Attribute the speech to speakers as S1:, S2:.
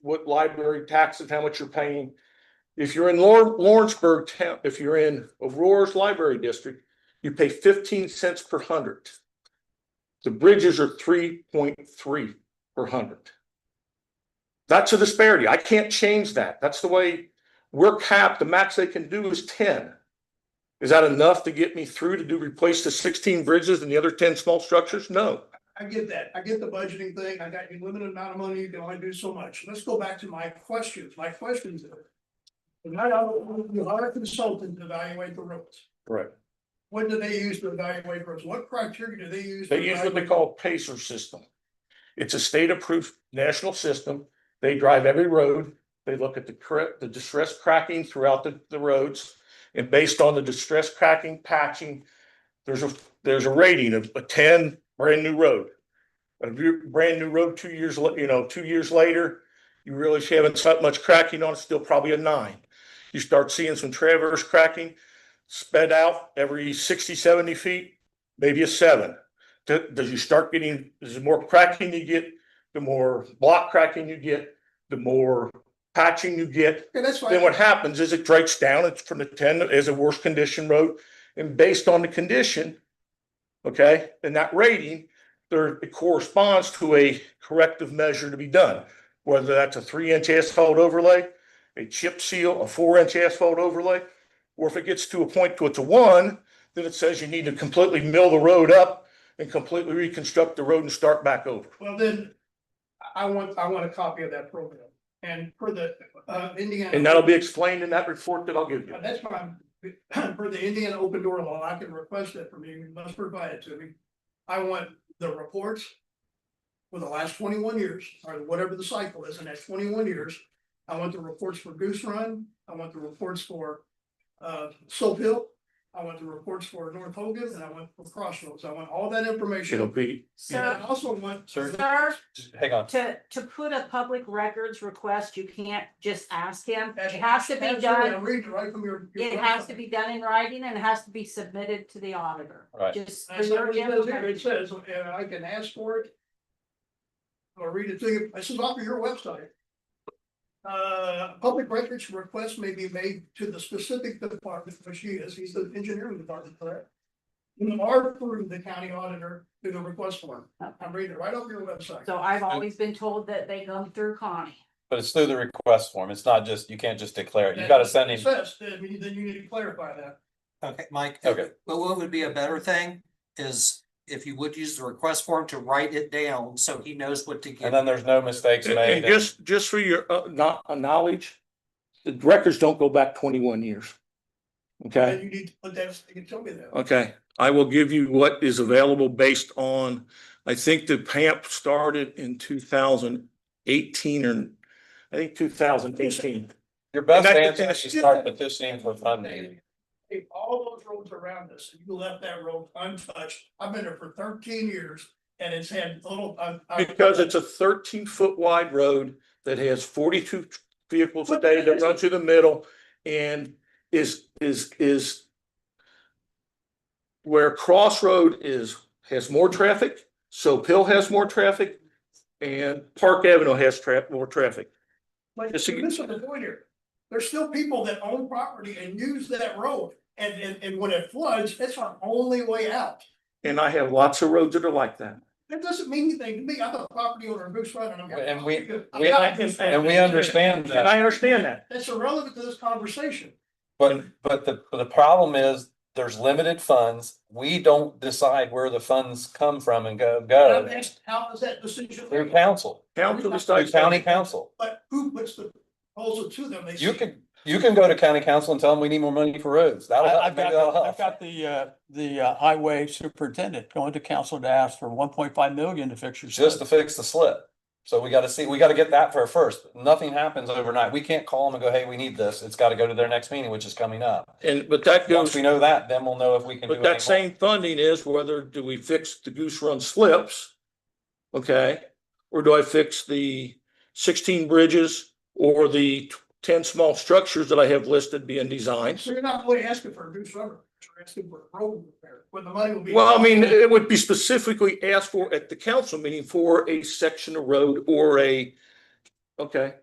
S1: what library taxes, how much you're paying. If you're in Lawr- Lawrenceburg town, if you're in Aurora's library district, you pay fifteen cents per hundred. The bridges are three point three per hundred. That's a disparity. I can't change that. That's the way we're capped. The max they can do is ten. Is that enough to get me through to do, replace the sixteen bridges and the other ten small structures? No.
S2: I get that. I get the budgeting thing. I got you limited amount of money. You can only do so much. Let's go back to my questions. My questions are. when I don't- You hire a consultant to evaluate the roads.
S1: Right.
S2: What do they use to evaluate roads? What criteria do they use? to
S1: They use what they
S2: evaluate-
S1: call Pacer system. It's a state-approved national system. They drive every road. They look at the correct, the distress cracking throughout the, the roads. And based on the distress cracking, patching, there's a, there's a rating of a ten, brand new road. A bu- brand new road, two years, la- you know, two years later, you really haven't had much cracking on it, still probably a nine. You start seeing some traverse cracking sped out every 60, 70 feet, maybe a seven. Do- does you start getting, is the more cracking you get, the more block cracking you get, the more patching you get.
S2: Okay, that's
S1: Then
S2: fine.
S1: what happens is it breaks down, it's from the ten, as a worse condition road, and based on the condition. Okay, and that rating, there, it corresponds to a corrective measure to be done. Whether that's a three inch asphalt overlay, a chip seal, a four inch asphalt overlay. Or if it gets to a point to it's a one, then it says you need to completely mill the road up and completely reconstruct the road and start back over.
S2: Well, then. I- I want, I want a copy of that program and for the, uh, Indiana.
S1: And that'll be explained in that report that I'll give you.
S2: Uh, That's why I'm, for the Indiana open door law, I can request that from you, you must provide it to me. I want the reports. For the last twenty-one years, or whatever the cycle is, and that's twenty-one years, I want the reports for Goose Run, I want the reports for. Uh, Soap Hill, I want the reports for North Hogan, and I want for Crossroads, I want all that
S1: It'll
S2: information.
S1: be,
S2: And I
S3: So,
S2: also want.
S3: sir,
S4: Hang on.
S3: to, to put a public records request, you can't just ask him. It
S2: That's-
S3: has to be
S2: Absolutely,
S3: done,
S2: I'm reading right from your. your
S3: it has to be done in writing and it has to be submitted to the auditor.
S4: Right.
S3: Just for
S2: That's not
S3: your
S2: what it says here. It
S3: information.
S2: says, uh, I can ask for it. Or read it to you, this is off of your website. Uh, public records request may be made to the specific department, which he is, he's the engineering department, correct? You are through the county auditor through the request form, I'm reading it right off your website.
S3: So I've always been told that they come through Connie.
S4: But it's through the request form. It's not just, you can't just declare it. You gotta send
S2: It
S4: him.
S2: Says, then you then you need to clarify that,
S5: Okay, Mike. uh,
S4: Okay.
S5: But what would be a better thing is if you would use the request form to write it down so he knows what to
S4: And
S5: give.
S4: then there's no mistakes
S1: and-
S4: made.
S1: and just, just for your, uh, not, uh, knowledge, the records don't go back twenty-one years. Okay?
S2: then you need to put that, you can tell me that.
S1: Okay, I will give you what is available based on, I think the PAMP started in two thousand eighteen or, I think two thousand eighteen.
S4: Your best
S1: and I-
S4: answer is to start petitioning for funding.
S2: Hey, all those roads around us, and you left that road untouched. I've been there for thirteen years and it's had little, uh, I. I-
S1: Because it's a thirteen foot wide road that has forty-two vehicles a day that run through the middle and is, is, is where Crossroad is, has more traffic, Soap Hill has more traffic, and Park Avenue has tra- more traffic.
S2: Like,
S1: Just to
S2: you're
S1: get-
S2: missing the point here. There's still people that own property and use that road. And, and, and when it floods, it's our only way out.
S1: And I have lots of roads that are like that.
S2: That doesn't mean anything to me. I'm a property owner in Goose Run and I'm.
S4: And we-
S2: I'm
S4: we-
S2: not Goose Run.
S4: And we understand
S1: And
S4: that,
S1: I understand that.
S2: That's irrelevant to this conversation.
S4: but, but the, the problem is there's limited funds. We don't decide where the funds come from and go,
S2: I'm
S4: go.
S2: asked, how is that decision?
S4: Through council,
S1: Council
S4: through
S1: decides.
S4: county council.
S2: But who puts the proposal to them? They
S4: You
S2: say-
S4: can, you can go to county council and tell them we need more money for roads. That'll,
S6: I-
S4: help.
S6: I've
S4: maybe
S6: got,
S4: that'll
S6: the-
S4: help.
S6: I've got the, uh, the uh, highway superintendent going to council to ask for one point five million to fix your.
S4: just to
S6: stuff.
S4: fix the slip. So we gotta see, we gotta get that for first. Nothing happens overnight. We can't call them and go, hey, we need this. It's gotta go to their next meeting, which is coming up.
S1: And, but that
S4: Once
S1: goes,
S4: we know that, then we'll know if we can do
S1: but that
S4: anything.
S1: same funding is whether do we fix the Goose Run slips? Okay, or do I fix the sixteen bridges or the ten small structures that I have listed being designed?
S2: So you're not really asking for a new summer, you're asking for a road repair, when the money will be.
S1: Well, I mean, it would be specifically asked for at the council meeting for a section of road or a, okay.